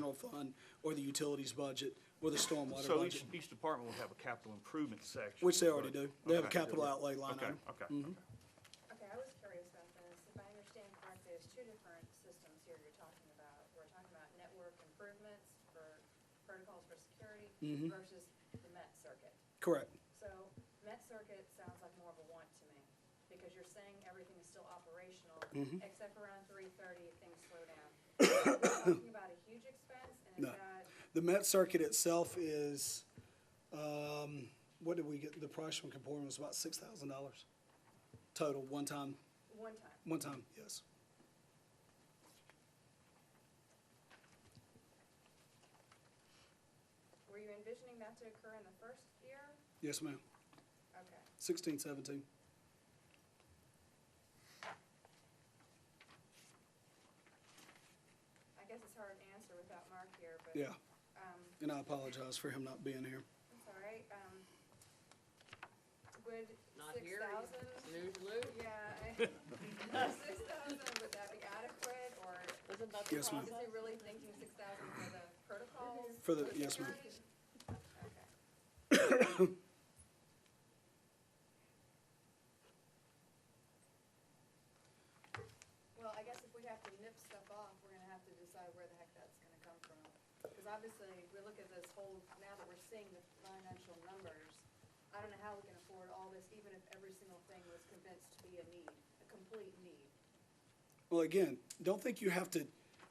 general fund, or the utilities budget, or the stormwater So each, budget. each department will have a capital improvement section. Which they already but- do. They have a Okay, they capital do. outlay line Okay, item. Okay, Mhm. okay. Okay, I was curious about this. If I understand correctly, there's two different systems here you're talking about. We're talking about network improvements for protocols for security Mm-hmm. versus the Met Circuit. Correct. So Met Circuit sounds like more of a want to me, because you're saying everything is still operational, Mm-hmm. except around three thirty, things slow down. Are we Talking about a huge expense, and No. is that, The Met Circuit itself is, um, what did we get, the price from Comportman was about six thousand dollars total, one time, one time, one time, yes. were you envisioning that to occur in the first year? Yes, ma'am. Okay. Sixteen, seventeen. I guess it's hard to answer without Mark here, but. Yeah, Um, and I apologize for him not being here. That's all right, um, would Not six here, thousand? snooze loop. Yeah. Six thousand, would that be adequate, or Isn't that the Yes, ma'am. is process? he really thinking six thousand for the protocols? For the- yes, ma'am. security? Okay. Well, I guess if we have to nip stuff off, we're gonna have to decide where the heck that's gonna come from. Because obviously, we look at this whole, now that we're seeing the financial numbers, I don't know how we can afford all this, even if every single thing was convinced to be a need, a complete need. Well, again, don't think you have to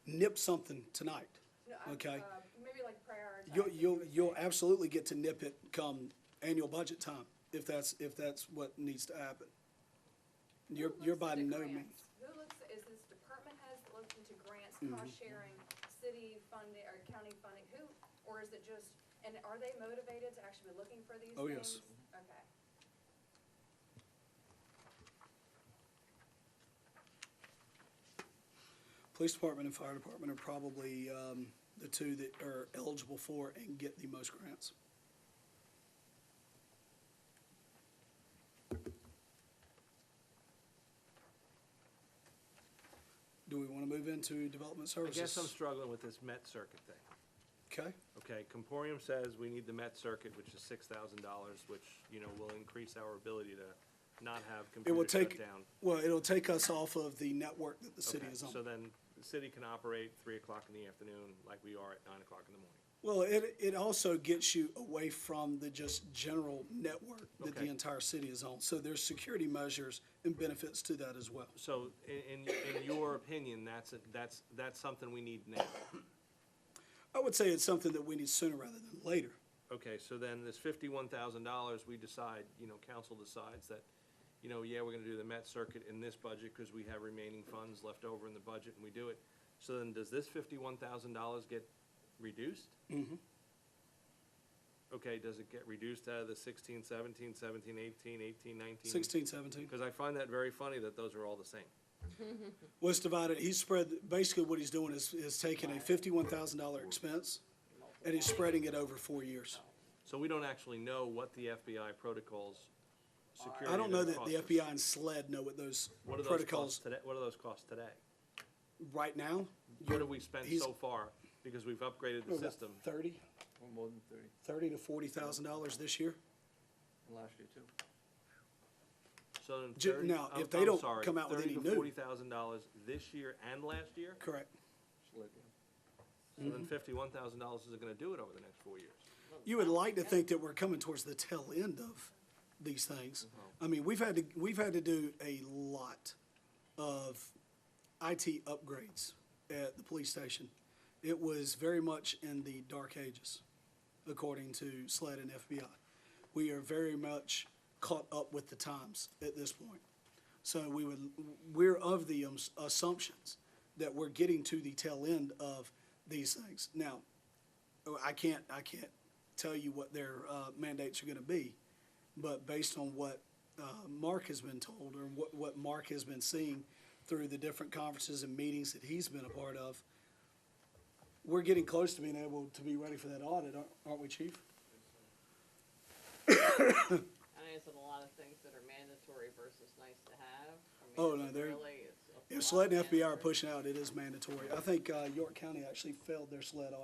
nip something tonight, No, I- okay? uh, Maybe like prioritize. You'll, it, you'll, you would you'll say. absolutely get to nip it come annual budget time, if that's, if that's what needs to happen. You're, Who you're by looks into no grants? means. Who looks, is this department heads that look into grants, Mm-hmm. cost sharing, city funding, or county funding, who, or is it just, and are they motivated to actually be looking for these things? Oh, yes. Okay. Police department and fire department are probably um, the two that are eligible for and get the most grants. Do we want to move into development I services? guess I'm struggling with this Met Circuit thing. Okay, Okay, Comporium says we need the Met Circuit, which is six thousand dollars, which, you know, will increase our ability to not have it will computers shut take, down. well, it'll take us off of the network that the city Okay, is on. So then, the city can operate three o'clock in the afternoon like we are at nine o'clock in the morning. Well, it, it also gets you away from the just general network that the Okay. entire city is on. So there's security measures and benefits to that as well. So, in, in, in your opinion, that's, a- that's, that's something we need now. I would say it's something that we need sooner rather than later. Okay, so then this fifty-one thousand dollars, we decide, you know, council decides that, you know, yeah, we're gonna do the Met Circuit in this budget because we have remaining funds left over in the budget and we do it. So then does this fifty-one thousand dollars get reduced? Mhm. Okay, does it get reduced out of the sixteen, seventeen, seventeen, eighteen, eighteen, nineteen? Sixteen, seventeen. Because I find that very funny that those are all the same. Well, it's divided, he's spread, basically what he's doing is, is taking a fifty-one thousand dollar expense and he's spreading it over four years. So we don't actually know what the FBI protocols, security. I don't know that the costs us. FBI and SLED know what those What are those costs protocols, today, what are those costs today? right now, What have we spent He's- so far? Because we've upgraded the system. thirty, Well, more than thirty, thirty to forty thousand dollars this year. and last year too. So in Ju- thirty, now, I'm, if they I'm don't sorry, come out with thirty any to new- forty thousand dollars this year and last year? Correct. Just let you know. So then fifty-one thousand dollars isn't gonna do it over the next four years. You would like to think that we're coming towards the tail end of these things. I mean, we've had to, we've had to do a lot of IT upgrades at the police station. It was very much in the dark ages, according to SLED and FBI. We are very much caught up with the times at this point. So we would, we're of the ums- assumptions that we're getting to the tail end of these things. Now, oh, I can't, I can't tell you what their uh, mandates are gonna be, but based on what uh, Mark has been told, or what, what Mark has been seeing through the different conferences and meetings that he's been a part of, we're getting close to being able to be ready for that audit, aren't- aren't we, Chief? I know it's a lot of things that are mandatory versus nice to have. I mean, Oh, is no, it they're- Really, it's a If lot SLED of and FBI are mandatory. pushing out, it is mandatory. I think uh, York County actually failed their SLED audit.